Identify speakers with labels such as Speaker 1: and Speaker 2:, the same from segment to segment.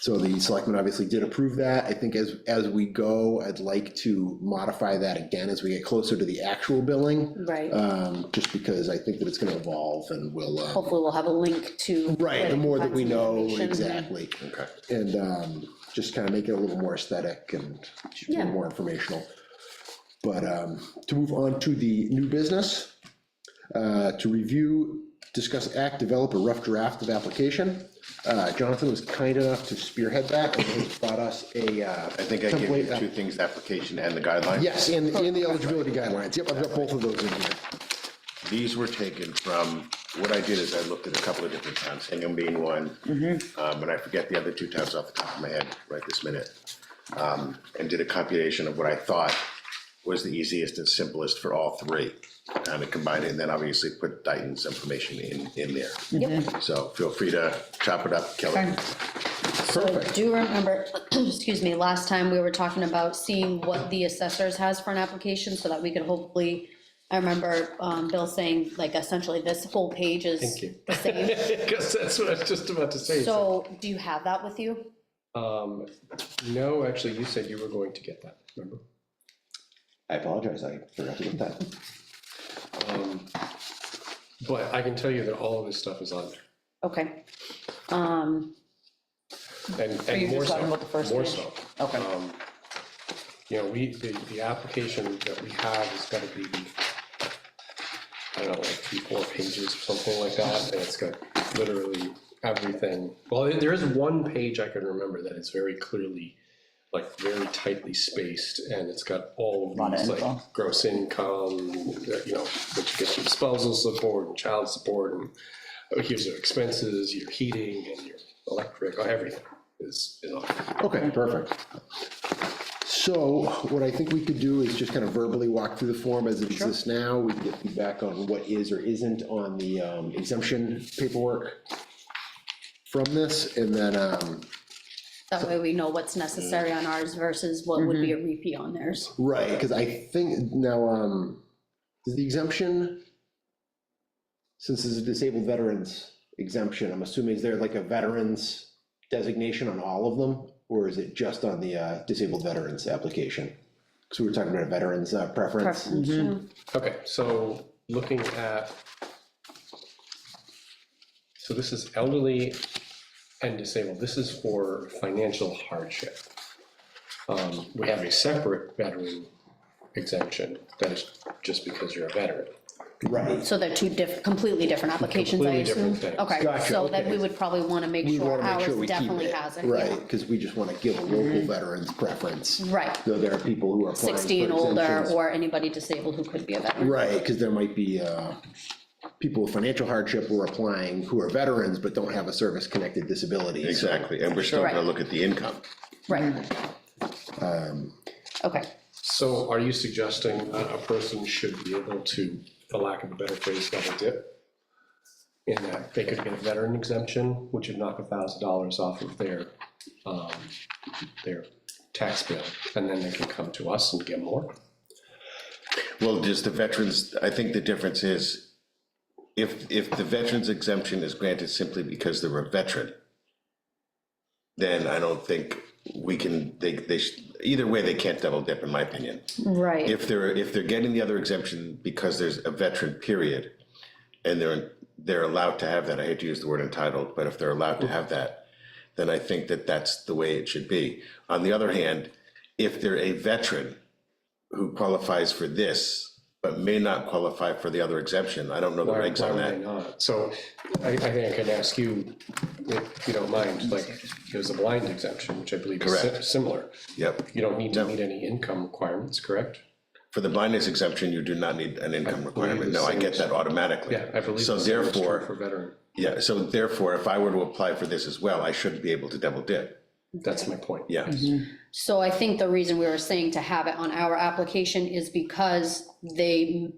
Speaker 1: So the selectmen obviously did approve that. I think as, as we go, I'd like to modify that again as we get closer to the actual billing.
Speaker 2: Right,
Speaker 1: Um, just because I think that it's gonna evolve and we'll, um,
Speaker 2: hopefully we'll have a link to.
Speaker 1: right,
Speaker 2: where
Speaker 1: the
Speaker 2: you
Speaker 1: more
Speaker 2: can
Speaker 1: that
Speaker 2: find
Speaker 1: we
Speaker 2: some
Speaker 1: know,
Speaker 2: information.
Speaker 1: exactly.
Speaker 3: Okay.
Speaker 1: And, um, just kind of make it a little more aesthetic and just
Speaker 2: Yeah.
Speaker 1: more informational. But, um, to move on to the new business, uh, to review, discuss act, develop a rough draft of application. Uh, Jonathan was kind enough to spearhead that and has brought us a, uh,
Speaker 3: I think I gave you
Speaker 1: Template, uh,
Speaker 3: two things, the application and the guidelines.
Speaker 1: yes, and, and the eligibility guidelines. Yep, I've got both of those in here.
Speaker 3: These were taken from, what I did is I looked at a couple of different towns, Hingham being one. Um, and I forget the other two towns off the top of my head right this minute. Um, and did a compilation of what I thought was the easiest and simplest for all three. Kind of combined it and then obviously put Dayton's information in, in there. So feel free to chop it up, Kelly.
Speaker 4: Okay.
Speaker 2: So do remember, excuse me, last time we were talking about seeing what the assessors has for an application so that we could hopefully, I remember um, Bill saying like essentially this whole page is
Speaker 5: Thank you.
Speaker 2: the same.
Speaker 5: Because that's what I was just about to say.
Speaker 2: So do you have that with you?
Speaker 5: Um, no, actually, you said you were going to get that, remember?
Speaker 6: I apologize, I forgot to get that.
Speaker 5: Um, But I can tell you that all of this stuff is on there,
Speaker 2: Okay. Um,
Speaker 5: and,
Speaker 4: Are you
Speaker 5: and more
Speaker 4: just
Speaker 5: so,
Speaker 4: talking about the first
Speaker 5: more
Speaker 4: page?
Speaker 5: so.
Speaker 4: Okay.
Speaker 5: Um, You know, we, the, the application that we have is gotta be, I don't know, like three, four pages or something like that, and it's got literally everything. Well, there- there is one page I can remember that is very clearly, like, very tightly spaced, and it's got all
Speaker 4: Lot
Speaker 5: of
Speaker 4: of
Speaker 5: these,
Speaker 4: info.
Speaker 5: like, gross income, you know, which gets your spousal support and child support, and oh, here's your expenses, your heating, and your electric, everything is, is on there.
Speaker 1: Okay, perfect. So what I think we could do is just kind of verbally walk through the form as it exists now. We can get feedback on what is or isn't on the um, exemption paperwork from this, and then, um,
Speaker 2: that way we know what's necessary on ours versus what would
Speaker 1: Mm-hmm.
Speaker 2: be a repeat on theirs.
Speaker 1: right, because I think now, um, is the exemption, since this is disabled veterans exemption, I'm assuming, is there like a veterans designation on all of them? Or is it just on the uh, disabled veterans application? Because we were talking about a veterans uh, preference.
Speaker 2: Preference, yeah.
Speaker 5: Okay, so looking at, so this is elderly and disabled, this is for financial hardship. Um, We have a separate veteran exemption, that is just because you're a veteran.
Speaker 1: Right.
Speaker 2: So they're two diff, completely different applications, I
Speaker 5: Completely
Speaker 2: assume?
Speaker 5: different things.
Speaker 2: Okay,
Speaker 1: Gotcha,
Speaker 2: so then
Speaker 1: okay.
Speaker 2: we would probably want to make
Speaker 1: We
Speaker 2: sure
Speaker 1: wanna make
Speaker 2: ours
Speaker 1: sure we keep
Speaker 2: definitely
Speaker 1: it,
Speaker 2: has it. yeah.
Speaker 1: Right, because we just want to give a local veterans preference,
Speaker 2: Right,
Speaker 1: though there are people who are applying for
Speaker 2: sixty and older,
Speaker 1: exemptions.
Speaker 2: or anybody disabled who could be a veteran.
Speaker 1: Right, because there might be uh, people with financial hardship who are applying, who are veterans but don't have a service-connected disability. so-
Speaker 3: Exactly. And we're still gonna
Speaker 2: Right.
Speaker 3: look at the income.
Speaker 2: Right.
Speaker 1: Um,
Speaker 2: Okay,
Speaker 5: So are you suggesting that a person should be able to, for lack of a better phrase, double dip? In that they could get a veteran exemption, which would knock a thousand dollars off of their, um, their tax bill, and then they can come to us and get more.
Speaker 3: Well, just the veterans, I think the difference is, if, if the veterans exemption is granted simply because they're a veteran, then I don't think we can, they, they, sh- either way, they can't double dip, in my opinion.
Speaker 2: right,
Speaker 3: If they're, if they're getting the other exemption because there's a veteran period, and they're, they're allowed to have that, I hate to use the word entitled, but if they're allowed to have that, then I think that that's the way it should be. On the other hand, if they're a veteran who qualifies for this, but may not qualify for the other exemption, I don't know the
Speaker 5: Why-
Speaker 3: regs on
Speaker 5: why would they
Speaker 3: that.
Speaker 5: not? So I, I think I could ask you, if you don't mind, like, there's a blind exemption, which I believe is si-
Speaker 3: Correct.
Speaker 5: similar.
Speaker 3: Yep,
Speaker 5: You don't need to meet any income requirements, correct?
Speaker 3: for the blindness exemption, you do not need an income requirement, no, I get that automatically.
Speaker 5: Yeah, I believe.
Speaker 3: So
Speaker 5: the same is true
Speaker 3: therefore-
Speaker 5: For veteran,
Speaker 3: Yeah, so therefore, if I were to apply for this as well, I shouldn't be able to double dip,
Speaker 5: that's my point.
Speaker 3: yeah.
Speaker 2: so I think the reason we were saying to have it on our application is because they.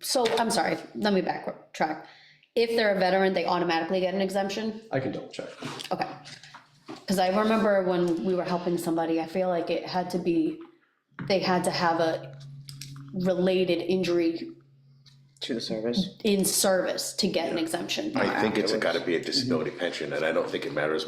Speaker 2: So, I'm sorry, let me backtrack, if they're a veteran, they automatically get an exemption?
Speaker 5: I can double check.
Speaker 2: Okay. Because I remember when we were helping somebody, I feel like it had to be, they had to have a related injury
Speaker 4: To the service.
Speaker 2: in service to get an exemption.
Speaker 3: I think it's gotta be a disability pension, and I don't think it matters